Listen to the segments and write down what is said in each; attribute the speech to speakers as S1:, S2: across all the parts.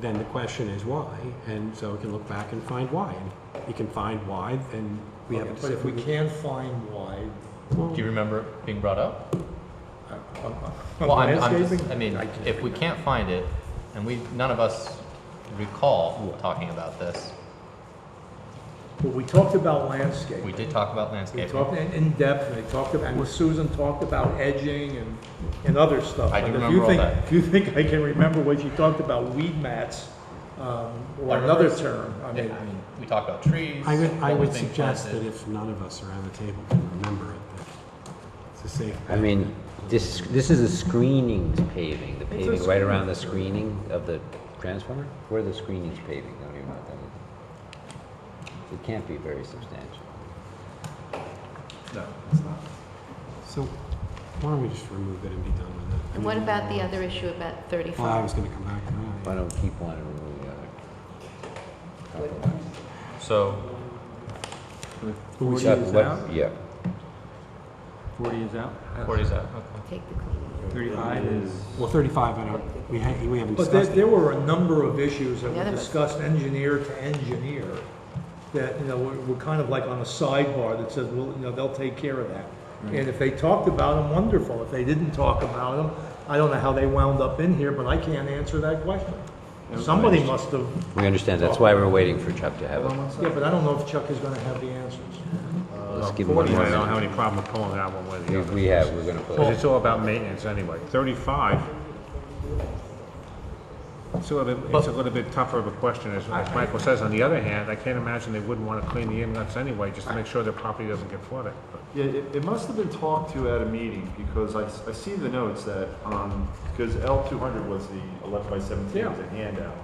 S1: then the question is why, and so we can look back and find why. And if we can find why, then we have a
S2: Okay, But if we
S1: decision.
S2: can find why,
S3: Do you remember it being brought up?
S2: I- I'm- I'm-
S3: Well, I'm, I'm just,
S2: uh, landscaping?
S3: I mean, if we can't find it, and we, none of us recall talking about this,
S2: Well, we talked about landscape.
S3: we did talk about
S2: We
S3: landscaping.
S2: talked in, in depth, and they talked about, and Susan talked about edging and, and other stuff.
S3: I do
S2: But if you
S3: remember all
S2: think-
S3: that.
S2: If you think I can remember what you talked about, weed mats, um,
S3: I
S2: or
S3: remember
S2: another
S3: s-
S2: term, I
S3: Yeah,
S2: mean,
S3: I mean, we talked about trees.
S1: I would, I
S3: what was
S1: would
S3: being
S1: suggest that
S3: planted.
S1: if none of us around the table can remember it, that it's a safe.
S4: I mean, this, this is the screening paving, the paving right around the screening of the transformer? Where the screening's paving, I don't even know what that is. It can't be very substantial.
S3: No.
S1: So why don't we just remove it and be done with it? I
S5: And what
S1: mean,
S5: about the other issue about
S1: Well, I was
S5: 35?
S1: gonna come back to
S4: Why
S1: that.
S4: don't we keep one and remove the other? Compromise.
S3: So,
S1: Forty
S4: Yeah,
S1: is
S4: what-
S1: out?
S4: Yeah,
S6: Forty is out,
S3: where is that? Okay.
S5: Take the cleaning.
S6: thirty-five is,
S4: uh,
S1: Well, thirty-five, I don't, we ha we haven't
S2: but there,
S1: discussed it.
S2: there were a number of issues that
S5: The
S2: were
S5: other-
S2: discussed engineer to engineer, that, you know, were, were kind of like on a sidebar that says, well, you know, they'll take care of that. And if they talked about them, wonderful, if they didn't talk about them, I don't know how they wound up in here, but I can't answer that question. Somebody must have
S4: we understand, that's why we're waiting for Chuck to have it.
S2: Yeah, but I don't know if Chuck is gonna have the answers.
S1: uh,
S4: Let's give him one more
S7: I don't have
S4: minute.
S7: any problem with pulling that one with
S4: We,
S7: you.
S4: we have, we're gonna
S7: Because
S4: put,
S7: it's all about maintenance anyway. Thirty-five, it's a little, bit- it's a little bit tougher of a question, as, as Michael says. On the other hand, I can't imagine they wouldn't want to clean the inlets anyway, just to make sure their property doesn't get flooded. But
S8: Yeah, it, it must have been talked to at a meeting because I, s- I see the notes that, um, because L two hundred was the eleven by seventeen was a handout.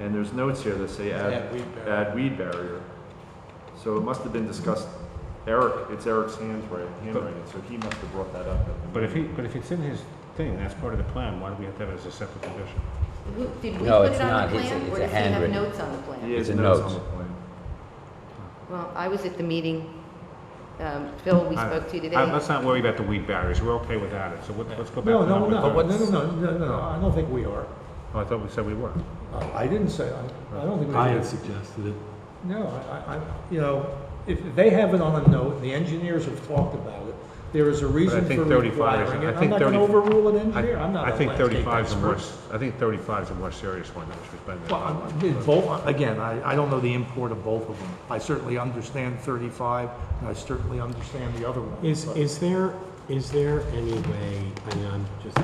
S8: And there's notes here that say
S2: add
S8: add,
S2: weed barrier.
S8: add weed barrier. So it must have been discussed, Eric, it's Eric's handwriting, handwriting, so he must have brought that up. at the
S7: But if he,
S8: meeting.
S7: but if it's in his thing, that's part of the plan, why do we have to have it as a separate condition?
S5: Who- Did we
S4: No,
S5: put
S4: it's
S5: it on
S4: not.
S5: the
S4: It's a-
S5: plan?
S4: it's
S5: Or
S4: a
S5: does he have
S4: handwritten.
S5: notes on the
S8: He
S5: plan?
S4: It's
S8: has
S4: a
S8: notes on
S4: note.
S8: the plan.
S5: Well, I was at the meeting, um, Phil, we
S7: I-
S5: spoke to you
S7: I-
S5: today.
S7: Let's not worry about the weed barriers, we're okay without it, so what- let's go back
S2: No,
S7: to
S2: no,
S7: number
S2: no, no,
S7: thirty.
S2: no, no, no, no, I don't think we are.
S7: Oh, I thought we said we were.
S2: Uh, I didn't say, I, I don't think we
S1: I had
S2: are.
S1: suggested it.
S2: No, I, I, I- you know, if if they have it on a note, and the engineers have talked about it, there is a reason
S7: think
S2: for
S7: 35 is-
S2: requiring
S7: I
S2: it. I'm
S7: think
S2: not gonna
S7: 30
S2: overrule an
S7: I
S2: engineer, I'm not a
S7: I think
S2: landscape
S7: thirty-five is a more,
S2: expert.
S7: s- I think thirty-five is a more serious one, which we've been.
S2: Well, I'm- it- both, again, I, I don't know the import of both of them. I certainly understand thirty-five, and I certainly understand the other one.
S1: Is,
S2: but-
S1: is there, is there any way, I mean, I'm just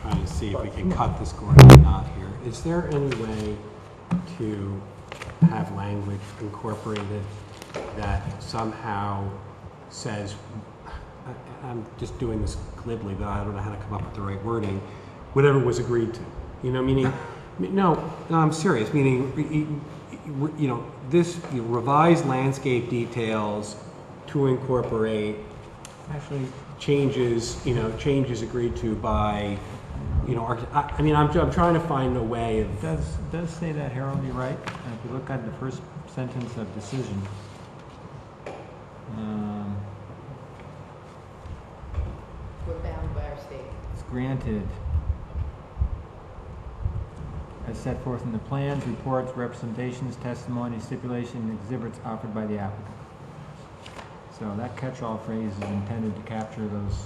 S1: trying to see if we can cut this Gordon knot here. Is there any way to have language incorporated that somehow says, I- I'm just doing this glibly, but I don't know how to come up with the right wording, whatever was agreed to. You know, meaning, no, no, I'm serious, meaning, you know, this you revised landscape details to incorporate actually changes, you know, changes agreed to by, you know, arch- I, I mean, I'm, I'm trying to find a way of,
S6: does, does say that, Harold, you're right, And if you look at the first sentence of decision. um,
S5: We're bound by our state.
S6: It's granted as set forth in the plans, reports, representations, testimony, stipulation, and exhibits offered by the applicant. So that catch-all phrase is intended to capture those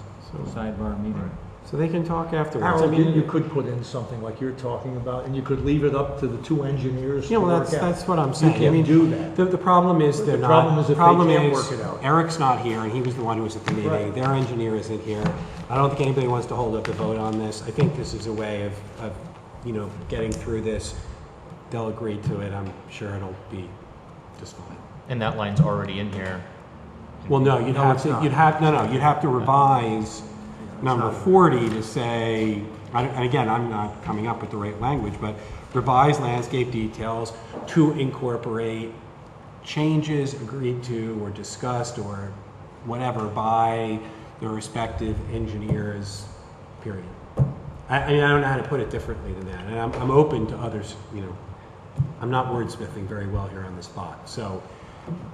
S6: sidebar meeting.
S1: so they can talk afterwards. I
S2: Harold, you,
S1: mean,
S2: you could put in something like you're talking about, and you could leave it up to the two engineers
S1: you
S2: to
S1: know,
S2: work
S1: that's,
S2: out.
S1: that's what I'm saying. I
S2: can't
S1: mean,
S2: do that.
S1: The, the problem is they're not.
S2: problem is if they
S1: problem is
S2: can't work it out.
S1: Eric's not here, and he was the one who was at the meeting.
S2: Right.
S1: Their engineer isn't here. I don't think anybody wants to hold up the vote on this. I think this is a way of, of, you know, getting through this. They'll agree to it. I'm sure it'll be just fine.
S3: And that line's already in here.
S1: Well, no, you'd have to, you'd have, no, no, you'd have to revise number 40 to say, I don't- and again, I'm not coming up with the right language, but revise landscape details to incorporate changes agreed to or discussed or whatever by the respective engineers, period. I, I mean, I don't know how to put it differently than that, and I'm, I'm open to others, you know, I'm not wordsmithing very well here on the spot, so,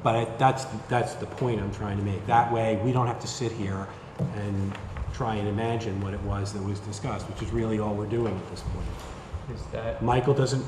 S1: but I, that's, that's the point I'm trying to make. That way, we don't have to sit here and try and imagine what it was that was discussed, which is really all we're doing at this point.
S3: Is that
S1: Michael doesn't